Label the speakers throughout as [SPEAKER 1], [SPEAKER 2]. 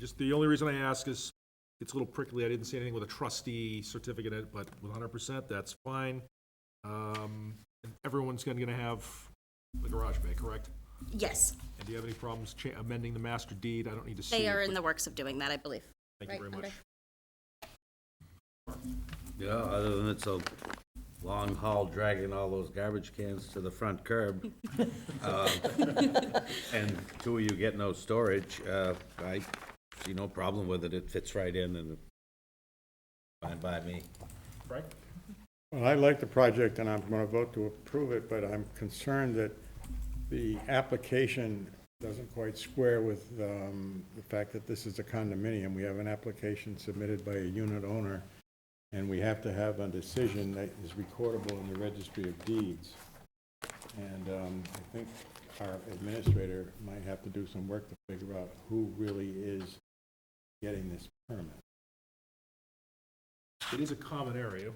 [SPEAKER 1] Just the only reason I ask is, it's a little prickly, I didn't see anything with a trustee certificate in it, but with hundred percent, that's fine. Um, and everyone's gonna, gonna have the garage bay, correct?
[SPEAKER 2] Yes,
[SPEAKER 1] And do you have any problems cha- amending the master deed? I don't need to see.
[SPEAKER 2] they
[SPEAKER 1] it,
[SPEAKER 2] are
[SPEAKER 1] but
[SPEAKER 2] in the works of doing that, I believe.
[SPEAKER 1] Thank you very much.
[SPEAKER 3] Yeah, other than it's a long haul dragging all those garbage cans to the front curb. um, And two of you get no storage, uh, I see no problem with it, it fits right in and fine by me.
[SPEAKER 1] Frank?
[SPEAKER 4] Well, I like the project and I'm going to vote to approve it, but I'm concerned that the application doesn't quite square with um, the fact that this is a condominium. We have an application submitted by a unit owner, and we have to have a decision that is recordable in the registry of deeds. And um, I think our administrator might have to do some work to figure out who really is getting this permit.
[SPEAKER 1] It is a common area.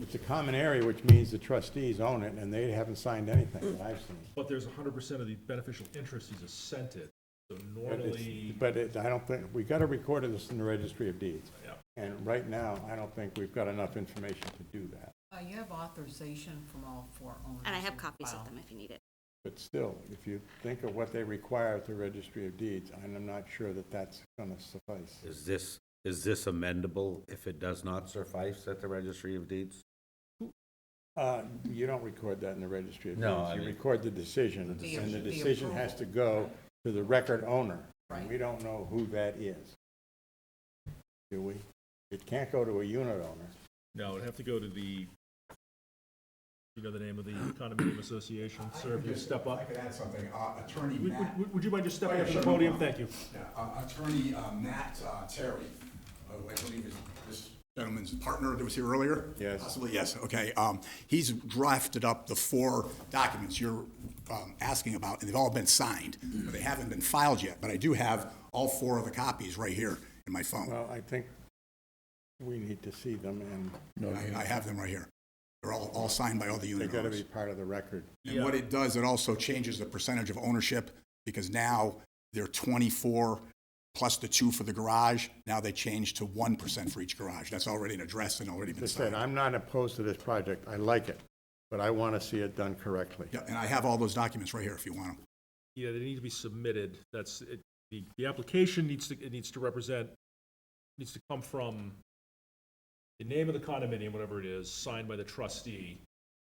[SPEAKER 4] It's a common area, which means the trustees own it, and they haven't signed anything that I've seen.
[SPEAKER 1] But there's hundred percent of the beneficial interest is assented, so
[SPEAKER 4] But it's-
[SPEAKER 1] normally,
[SPEAKER 4] But it, I don't think, we gotta record this in the registry of deeds.
[SPEAKER 1] yeah.
[SPEAKER 4] And right now, I don't think we've got enough information to do that.
[SPEAKER 5] Uh, You have authorization from all four owners.
[SPEAKER 2] And I have
[SPEAKER 5] in
[SPEAKER 2] copies of
[SPEAKER 5] file.
[SPEAKER 2] them if you need it.
[SPEAKER 4] But still, if you think of what they require at the registry of deeds, I'm not sure that that's gonna suffice.
[SPEAKER 3] Is this, is this amendable if it does not suffice at the registry of deeds?
[SPEAKER 4] Uh, you don't record that in the registry of
[SPEAKER 3] No, I
[SPEAKER 4] deeds. You
[SPEAKER 3] mean-
[SPEAKER 4] record the decision,
[SPEAKER 5] The-
[SPEAKER 4] and the
[SPEAKER 5] the
[SPEAKER 4] decision has to
[SPEAKER 5] approval.
[SPEAKER 4] go to the record owner. And
[SPEAKER 5] Right.
[SPEAKER 4] We don't know who that is. Do we? It can't go to a unit owner.
[SPEAKER 1] No, it'd have to go to the, you know the name of the condominium association, sir, if you step
[SPEAKER 6] I
[SPEAKER 1] up.
[SPEAKER 6] could add something. Uh, Attorney
[SPEAKER 1] Would,
[SPEAKER 6] Matt,
[SPEAKER 1] would- would you mind just
[SPEAKER 6] Oh,
[SPEAKER 1] stepping
[SPEAKER 6] yeah,
[SPEAKER 1] up to the
[SPEAKER 6] sure, no
[SPEAKER 1] podium? Thank
[SPEAKER 6] problem.
[SPEAKER 1] you.
[SPEAKER 6] yeah, uh, Attorney uh, Matt uh, Terry, who I believe is this gentleman's partner that was here earlier?
[SPEAKER 4] Yes.
[SPEAKER 6] Possibly, yes, okay. Um, He's drafted up the four documents you're um, asking about, and they've all been signed. but They haven't been filed yet, but I do have all four of the copies right here in my phone.
[SPEAKER 4] Well, I think we need to see them, and
[SPEAKER 6] I I have them right here. They're all, all signed by all
[SPEAKER 4] they're
[SPEAKER 6] the unit
[SPEAKER 4] gonna
[SPEAKER 6] owners.
[SPEAKER 4] be part of the record.
[SPEAKER 6] And what it does, it also changes the percentage of ownership, because now they're 24 plus the two for the garage. Now they change to 1% for each garage. That's already an address and already
[SPEAKER 4] As I
[SPEAKER 6] been
[SPEAKER 4] said,
[SPEAKER 6] signed.
[SPEAKER 4] I'm not opposed to this project, I like it, but I wanna see it done correctly.
[SPEAKER 6] Yeah, And I have all those documents right here if you want them.
[SPEAKER 1] Yeah, they need to be submitted, that's, it, the, the application needs to, it needs to represent, needs to come from the name of the condominium, whatever it is, signed by the trustee,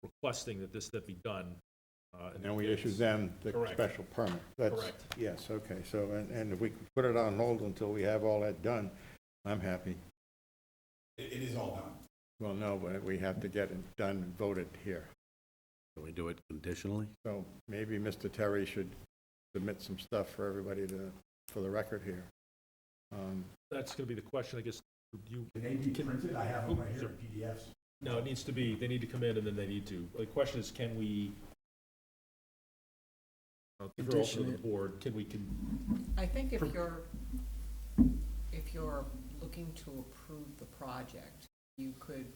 [SPEAKER 1] requesting that this, that be done. uh,
[SPEAKER 4] And then we issue them the
[SPEAKER 1] Correct.
[SPEAKER 4] special permit. That's-
[SPEAKER 1] Correct.
[SPEAKER 4] Yes, okay, so, and, and if we can put it on hold until we have all that done, I'm happy.
[SPEAKER 6] It is all done.
[SPEAKER 4] Well, no, but we have to get it done and voted here.
[SPEAKER 3] Can we do it conditionally?
[SPEAKER 4] So maybe Mr. Terry should submit some stuff for everybody to, for the record here. Um,
[SPEAKER 1] That's gonna be the question, I guess, you.
[SPEAKER 6] They be printed, I have
[SPEAKER 1] them right here
[SPEAKER 6] in PDFs.
[SPEAKER 1] No, it needs to be, they need to come in and then they need to, the question is, can we? I'll throw it to the board, can we, can,
[SPEAKER 5] I think if you're, if you're looking to approve the project, you could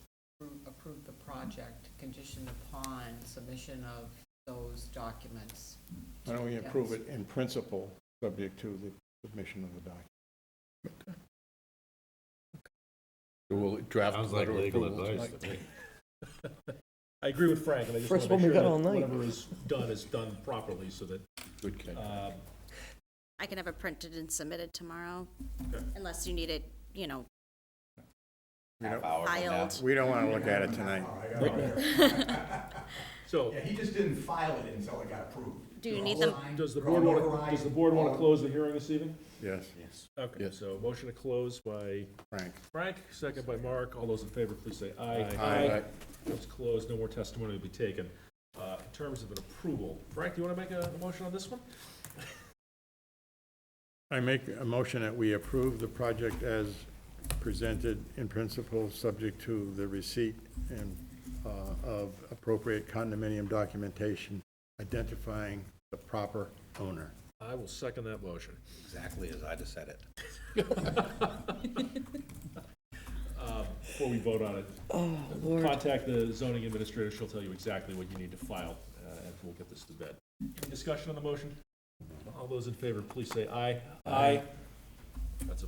[SPEAKER 5] appro- approve the project conditioned upon submission of those documents.
[SPEAKER 4] Why don't we approve it in principle, subject to the submission of the document?
[SPEAKER 7] We'll draft.
[SPEAKER 3] Sounds like
[SPEAKER 7] letter of
[SPEAKER 3] legal
[SPEAKER 7] approval
[SPEAKER 3] advice
[SPEAKER 7] tonight.
[SPEAKER 3] to me.
[SPEAKER 1] I agree with Frank, and I just
[SPEAKER 7] First one
[SPEAKER 1] wanna
[SPEAKER 7] we
[SPEAKER 1] make sure
[SPEAKER 7] got all
[SPEAKER 1] that
[SPEAKER 7] night.
[SPEAKER 1] whatever is done is done properly, so that,
[SPEAKER 7] Good catch.
[SPEAKER 1] um,
[SPEAKER 2] I can have it printed and submitted tomorrow, unless you need it, you know, filed.
[SPEAKER 4] We don't want to look at it tonight.
[SPEAKER 1] so,
[SPEAKER 6] Yeah, he just didn't file it until it got approved.
[SPEAKER 2] Do you need them?
[SPEAKER 1] does the board wanna, does the board wanna close the hearing this evening?
[SPEAKER 4] Yes,
[SPEAKER 1] Okay, so motion to close by
[SPEAKER 4] Frank.
[SPEAKER 1] Frank, second by Mark, all those in favor, please say aye.
[SPEAKER 4] Aye. Aye.
[SPEAKER 1] It's closed, no more testimony will be taken. Uh, in terms of an approval, Frank, do you wanna make a, a motion on this one?
[SPEAKER 4] I make a motion that we approve the project as presented in principle, subject to the receipt and, uh, of appropriate condominium documentation identifying the proper owner.
[SPEAKER 1] I will second that motion.
[SPEAKER 3] Exactly as I just said it.
[SPEAKER 1] Before we vote on it, contact the zoning administrator, she'll tell you exactly what you need to file, uh, and we'll get this to bed. Any discussion on the motion? All those in favor, please say aye. Aye. That's a